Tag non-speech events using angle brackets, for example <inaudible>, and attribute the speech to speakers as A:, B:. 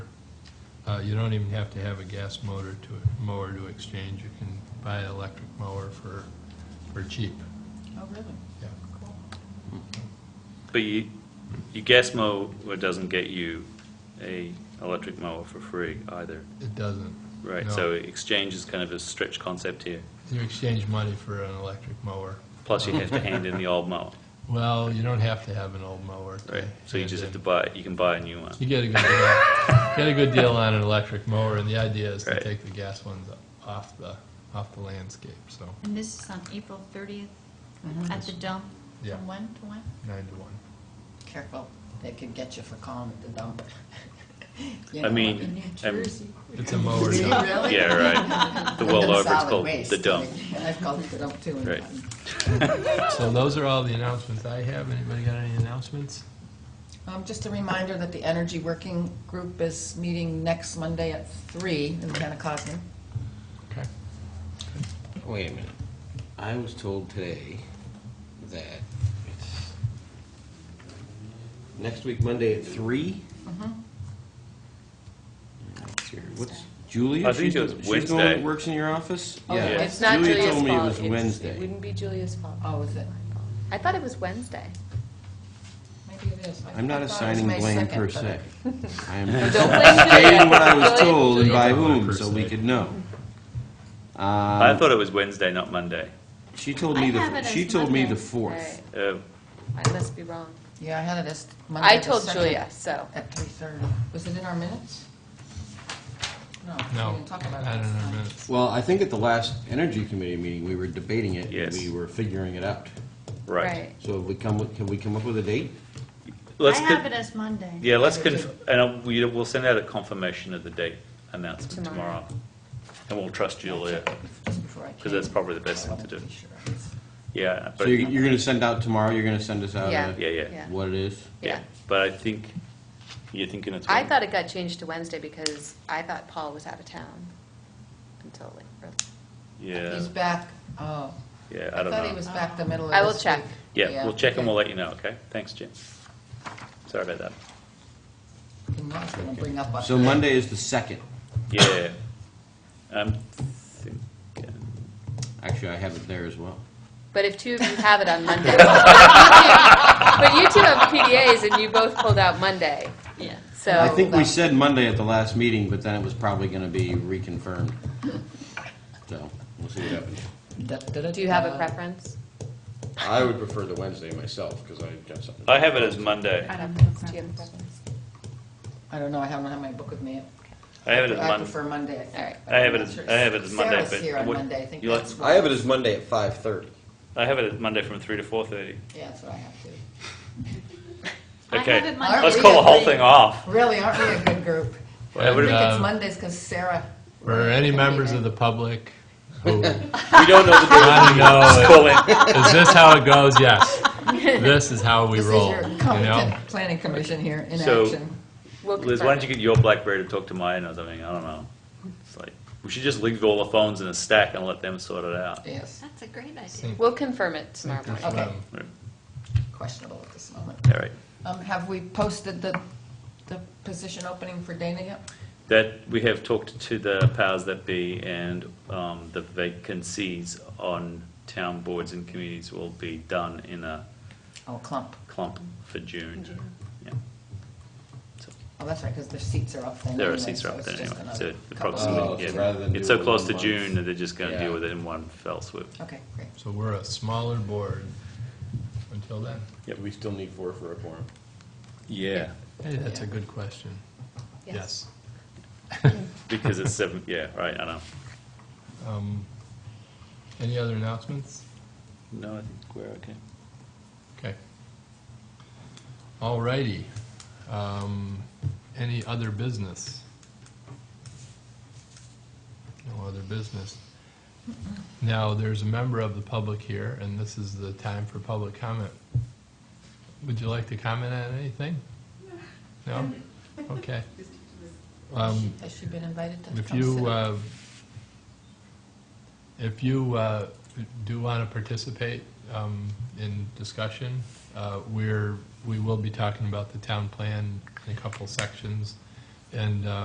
A: Uh, You don't even have to have a gas motor to, mower to exchange. You can buy an electric mower for, for cheap.
B: Oh, really?
A: Yeah.
B: Cool.
C: But you, your gas mower doesn't get you a electric mower for free either,
A: It doesn't.
C: right?
A: No.
C: So exchange is kind of a stretch concept here.
A: You exchange money for an electric mower.
C: Plus, you have to hand in the old mower,
A: Well, you don't have to have an old mower. to
C: right? So you
A: hand
C: just
A: in.
C: have to buy, you can buy a new
A: <laughs>
C: one.
A: You get a good deal, get a good deal on an electric mower, and the idea is to
C: Right.
A: take the gas ones off the, off the landscape, so,
B: And this is on April 30th at the dump?
A: Yeah.
B: From when to when?
A: nine to one.
D: Careful, they could get you for calling at the
C: <laughs>
D: dump. You
C: I
D: know,
C: mean,
D: in New
C: I'm-
D: Jersey. <laughs>
A: It's a
E: Oh,
A: mower dump.
D: Really?
C: Yeah, right. The world
D: And
C: over, it's
D: solid
C: called
D: waste.
C: the dump.
D: I've called it the dump too. and
C: Right.
D: gotten-
A: So those are all the announcements I have. Anybody got any announcements?
D: Um, Just a reminder that the Energy Working Group is meeting next Monday at three in Pentecostin.
A: Okay.
E: Wait a minute. I was told today that it's next week, Monday at three? Mm-hmm. Let's hear, What's Julia?
C: I think
E: She's
C: it was
E: the- She's the one that
C: Wednesday.
E: works in your office?
D: Oh,
E: Yeah.
D: yeah.
F: It's not Julia's fault.
E: Julia told me it was
F: It's- It
E: Wednesday.
F: wouldn't be Julia's fault.
D: Oh, is it?
F: I thought it was Wednesday.
D: Maybe it is. I-
E: I'm not
D: I thought it was
E: assigning
D: May
E: blame
D: 2nd,
E: per
D: but-
E: se.
F: <laughs>
E: I am
F: Don't
E: just <laughs>
F: blame
E: stating what I
F: Julia.
E: was told and by
A: Don't blame
E: whom,
A: her
E: so
A: per
E: we
A: se.
E: could know.
C: I
E: Um,
C: thought it was Wednesday, not Monday.
E: She told
F: I
E: me
F: have
E: the,
F: it
E: she
F: as
E: told me
F: Monday.
E: the fourth.
C: Uh,
F: I must be wrong.
D: Yeah, I had it as Monday
F: I
D: the
F: told
D: 2nd
F: Julia, so.
D: At three thirty. Was it in our minutes? No, we
A: No,
D: didn't talk about it.
A: I
D: last
A: don't know,
D: time.
A: minutes.
E: Well, I think at the last Energy Committee meeting, we were debating it. and
C: Yes.
E: We were figuring it out.
C: right.
E: So have we come, with- can we come up with a date?
C: Let's
B: I
C: con-
B: have it as Monday.
C: Yeah, let's, conf- and I'll- we- we'll send out a confirmation of the date announcement
F: Tomorrow.
C: tomorrow. And we'll trust Julia.
D: Just before I came.
C: 'Cause that's probably the best
D: I
C: thing to
D: wanted be
C: do.
D: sure.
C: Yeah,
E: So
C: but,
E: you're, you're gonna send out tomorrow, you're gonna send us out
F: Yeah.
E: a-
C: Yeah, yeah.
E: what it is?
C: yeah, but I think you're thinking it's.
F: I
C: Wednesday.
F: thought it got changed to Wednesday because I thought Paul was out of town until like. early.
C: Yeah,
D: He's back, oh.
C: yeah, I don't know.
D: thought he was back the middle of
F: I will
D: this
F: check.
D: week.
C: Yeah, we'll check and we'll
D: okay.
C: let you know, okay? Thanks, Jim. Sorry about that.
D: And Ron's gonna bring up a-
E: So Monday is the second.
C: Yeah. I'm thinking,
E: Actually, I have it there as well.
F: But if two of you have it
E: <laughs>
F: on Monday. But you two have PDAs and you both pulled out Monday,
B: Yeah.
F: so.
E: I think we
D: that-
E: said Monday at the last meeting, but then it was probably gonna be reconfirmed. So, we'll see what happens.
D: Da- da- da-
F: Do you have a
D: da.
F: preference?
E: I would prefer the Wednesday myself, because I've got something.
C: I have it as Monday.
F: I don't have Do you have a preference?
D: I don't know, I haven't had my book with me.
C: I have it as
D: I
C: Monday.
D: prefer Monday, I think.
F: All right.
D: but
C: I
D: I'm
C: have it
D: not
C: as-
D: sure.
C: I have it as Monday, but
D: Sarah's here on
C: what-
D: Monday, I think
C: you like-
D: that's
G: I have it
D: what-
G: as Monday at five thirty.
C: I have it as Monday from three to four thirty.
D: Yeah, that's what I have to.
B: I
C: Okay.
B: have it Monday.
C: Let's call the whole
D: <laughs>
C: thing off.
D: Really, aren't we a good group?
C: I
D: I
C: would-
D: think it's
A: Um,
D: Mondays because Sarah.
A: For any members of the public who <laughs>
C: We don't know the
A: want to
C: Let's
A: know,
C: call in.
A: is this how it goes? Yes. This is how we
D: This is
A: roll,
D: your
A: you know?
D: competent <laughs> planning commission here in
C: So-
D: action.
F: We'll <laughs>
C: Liz, why don't you
F: confirm
C: get your BlackBerry to talk to mine or something? I don't know. It's like, we should just leave all the phones in a stack and let them sort it out.
D: Yes,
B: That's a great idea.
A: Think-
F: it. We'll confirm it tomorrow
A: think
F: morning.
A: there's,
D: Okay.
A: um,
C: Right.
D: questionable at this moment.
C: All right.
D: Um, Have we posted the, the position opening for Dana yet?
C: That, we have talked to the powers that be and um, the vacancies on town boards and committees will be done in a
D: Oh, clump.
C: clump for June. Yeah. So
D: Oh, that's right, because their seats are up then.
C: There are
D: anyway,
C: seats
D: so
C: up
D: it's
C: there
D: just
C: anyway,
D: another
C: so the
D: couple of
E: proximity.
D: weeks.
E: Oh, so rather
C: yeah,
E: than
C: it's
E: do
C: so
E: it
C: close to
E: all at
C: June
E: once.
C: that they're just gonna
E: Yeah.
C: deal with it in one fell swoop.
D: Okay, great.
A: So we're a smaller board until then.
E: Do we still need four for a quorum?
C: Yeah.
A: Hey, that's a good question. Oh, Yes.
C: Because it's seven, yeah, right, I know.
A: Um, Any other announcements?
C: No, I think we're okay.
A: Okay. All righty. Um, Any other business? No other business. Now, there's a member of the public here, and this is the time for public comment. Would you like to comment on anything? No? Okay. Um,
D: Has she been invited to come
A: If
D: sit?
A: you, uh, if you uh, do want to participate um, in discussion, uh, we're, we will be talking about the town plan in a couple sections, and uh,